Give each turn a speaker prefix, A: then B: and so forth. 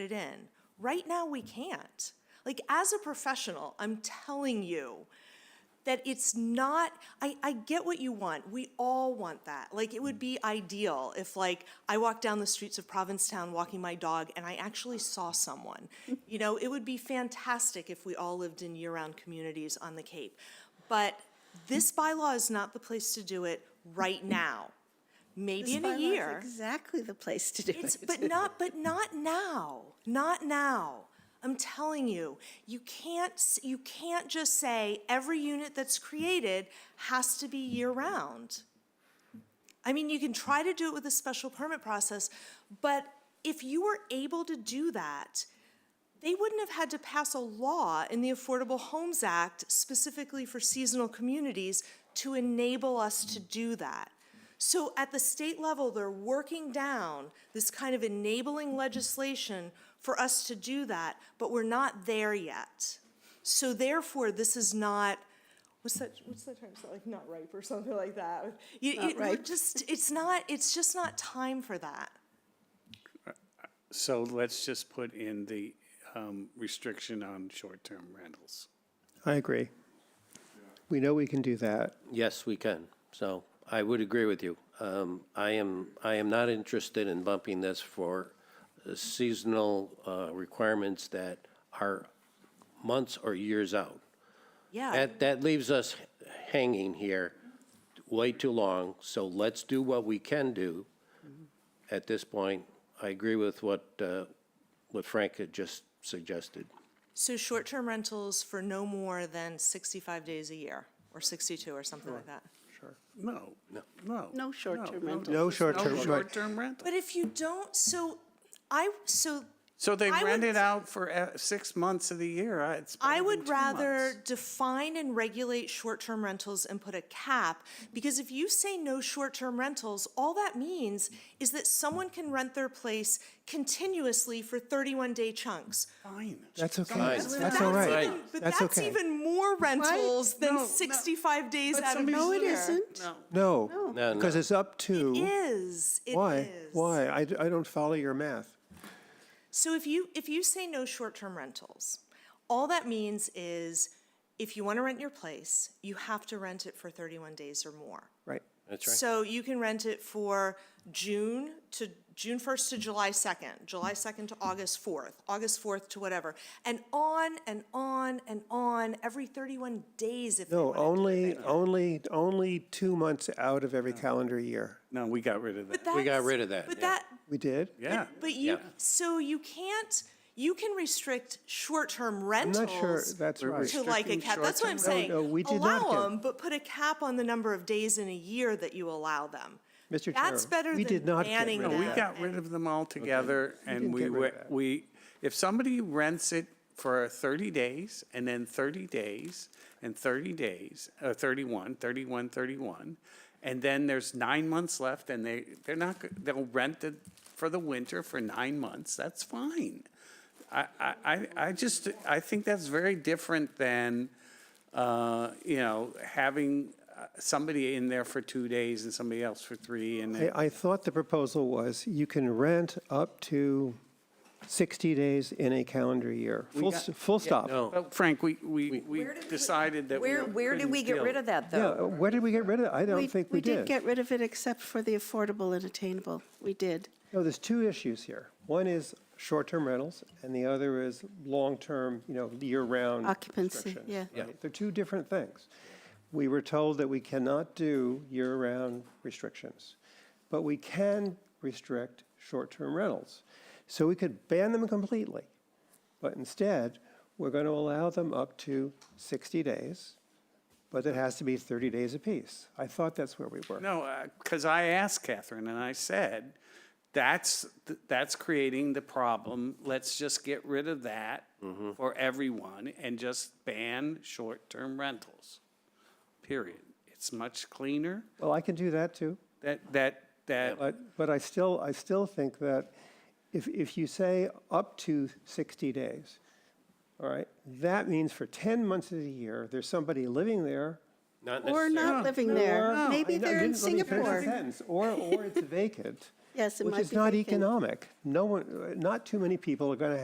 A: it in. Right now, we can't. Like, as a professional, I'm telling you that it's not, I, I get what you want. We all want that. Like, it would be ideal if, like, I walked down the streets of Provincetown walking my dog and I actually saw someone. You know, it would be fantastic if we all lived in year round communities on the Cape. But this bylaw is not the place to do it right now. Maybe
B: This
A: in a
B: bylaw is
A: year.
B: Exactly the place to do
A: It's,
B: it.
A: but not, but not now, not now. I'm telling you, you can't, s- you can't just say every unit that's created has to be year-round. I mean, you can try to do it with a special permit process, but if you were able to do that, they wouldn't have had to pass a law in the Affordable Homes Act specifically for seasonal communities to enable us to do that. So at the state level, they're working down this kind of enabling legislation for us to do that, but we're not there yet. So therefore, this is not, what's that, what's that term, Is that like not ripe or something like that? You, you, we're
B: ripe.
A: just, it's not, it's just not time for that.
C: So let's just put in the um, restriction on short-term rentals.
D: I agree. We know we can do that.
E: Yes, we can. So I would agree with you. Um, I am, I am not interested in bumping this for seasonal uh, requirements that are months or years out.
A: Yeah,
E: That, that leaves us hanging here way too long, so let's do what we can do.
D: Mm-hmm.
E: At this point, I agree with what, uh, what Frank had just suggested.
A: so short-term rentals for no more than sixty-five days a year, or sixty-two, or something like that.
C: No, no, no.
B: No short-term
C: no,
B: rentals.
D: No short-term,
C: No
D: right.
C: short-term rental.
A: But if you don't, so I, so
C: So they
A: I would-
C: rent it out for uh, six months of the year. uh, It's
A: I
C: better
A: would
C: than two
A: rather
C: months.
A: define and regulate short-term rentals and put a cap, because if you say no short-term rentals, all that means is that someone can rent their place continuously for thirty-one day chunks.
C: Fine.
D: That's okay.
C: Someone
E: Fine.
C: lives
A: But
D: That's
C: there.
D: all right.
A: even- But
D: That's
A: that's
D: okay.
A: even more rentals
C: No,
A: than
C: no.
A: sixty-five days
C: But
A: out of the year.
C: somebody's-
B: No, it isn't.
C: No,
D: No,
E: No,
D: because
E: no.
D: it's up to.
A: Is, it
D: Why?
A: is.
D: Why? I, d- I don't follow your math.
A: So if you, if you say no short-term rentals, all that means is if you want to rent your place, you have to rent it for 31 days or more.
D: Right.
E: That's right.
A: So you can rent it for June to, June 1st to July 2nd, July 2nd to August 4th, August 4th to whatever, and on and on and on, every 31 days if they
D: No,
A: want to do it.
D: only, only, only two months out of every calendar year.
C: no, we got rid of that.
A: But
E: We got
A: that's-
E: rid of that,
A: But
E: yeah.
A: that,
D: We did?
C: Yeah.
A: But you,
E: Yeah.
A: so you can't, you can restrict short-term rentals.
D: not sure that's We're right.
A: To like a
C: restricting
A: cap, that's what I'm
C: short-term
A: saying.
D: rentals. No, we did not
A: Allow
D: do-
A: them, but put a cap on the number of days in a year that you allow them.
D: Mr.
A: That's
D: Chair,
A: better
D: we
A: than
D: did not get
A: banning
D: rid of
C: No, we
A: them.
C: got rid of them altogether, and
D: didn't
C: we,
D: get rid of
C: wa-
D: that.
C: we, if somebody rents it for 30 days, and then 30 days, and 30 days, uh, 31, 31, 31, and then there's nine months left, and they, they're not, go- they'll rent it for the winter for nine months, that's fine. I, I, I- I just, I think that's very different than, uh, you know, having uh, somebody in there for two days and somebody else for three, and then-
D: I, I thought the proposal was you can rent up to 60 days in a calendar year. Full,
C: got-
D: s- full stop.
C: Well, Frank, we, we, we decided that.
F: Where, where did we get rid of that,
D: Yeah,
F: though?
D: where did we get rid of it? I don't think we
B: We did get rid of it except for the affordable and attainable. We did.
D: No, there's two issues here. One is short-term rentals, and the other is long-term, you know, year-round.
B: Occupancy,
D: restrictions,
B: yeah.
D: right? They're two different things. We were told that we cannot do year-round restrictions, but we can restrict short-term rentals. So we could ban them completely, but instead, we're going to allow them up to 60 days, but it has to be 30 days apiece. I thought that's where we were.
C: No, because I asked Catherine and I said, that's, th- that's creating the problem. Let's just get rid of that for everyone and just ban short-term rentals. Period. It's much cleaner
D: Well, I can do that, too.
C: that, that, that.
D: But, but I still, I still think that if, if you say up to 60 days, all right, that means for 10 months of the year, there's somebody living there.
E: Not
B: Or
E: necessarily.
B: not living there. Maybe
D: I know-
B: they're in
D: didn't let me finish the
B: Singapore.
D: sentence. Or, or it's vacant.
B: Yes, it might
D: Which
B: be
D: is not
B: vacant.
D: economic. No one, not too many people are going to